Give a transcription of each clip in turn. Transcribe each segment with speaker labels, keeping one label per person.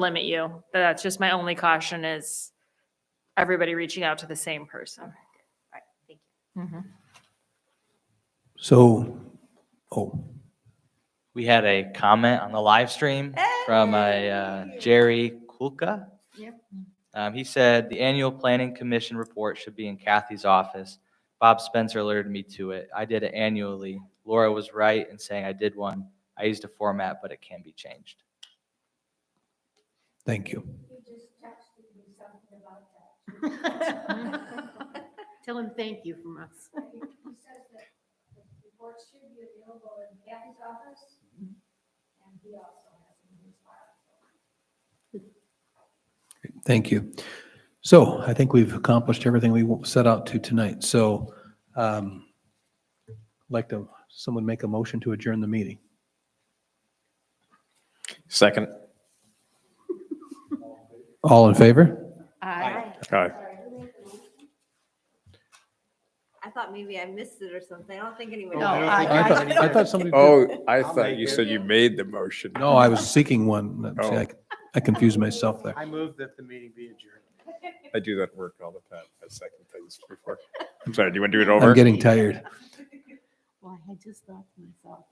Speaker 1: limit you. That's just my only caution is everybody reaching out to the same person.
Speaker 2: right, thank
Speaker 1: Mhm.
Speaker 3: So, oh,
Speaker 4: We had a comment on the live stream from a uh, Jerry Kulka.
Speaker 2: Yep.
Speaker 4: Um, he said, "The annual planning commission report should be in Kathy's office. Bob Spencer alerted me to it. I did it annually. Laura was right in saying I did one. I used a format, but it can be changed."
Speaker 3: thank you.
Speaker 2: Tell him thank you from us.
Speaker 5: He says that the report should be available in Kathy's office, and he also has it in his file.
Speaker 3: Thank you. So I think we've accomplished everything we set out to tonight. So um like to, someone make a motion to adjourn the meeting.
Speaker 6: Second.
Speaker 3: All in favor?
Speaker 2: I
Speaker 6: Aye.
Speaker 2: I thought maybe I missed it or something. I don't think anyone.
Speaker 7: No, I don't think
Speaker 3: I thought, I thought somebody,
Speaker 6: Oh, I
Speaker 7: I'll
Speaker 6: thought
Speaker 7: make
Speaker 6: you
Speaker 7: it.
Speaker 6: said you made the motion.
Speaker 3: no, I was seeking one.
Speaker 6: Oh.
Speaker 3: See, I- I confused myself there.
Speaker 7: I move that the meeting be adjourned.
Speaker 6: I do that work all the time. I second things before. I'm sorry, do you want to do it over?
Speaker 3: I'm getting tired.
Speaker 8: Well, I had just thought to myself,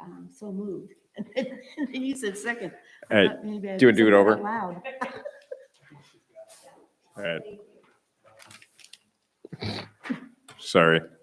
Speaker 8: um, so moved. And then you said second.
Speaker 6: All right,
Speaker 8: Thought Uh, maybe I
Speaker 6: do you wanna do
Speaker 8: said
Speaker 6: it
Speaker 8: that
Speaker 6: over?
Speaker 8: out Loud.
Speaker 6: all right. Sorry.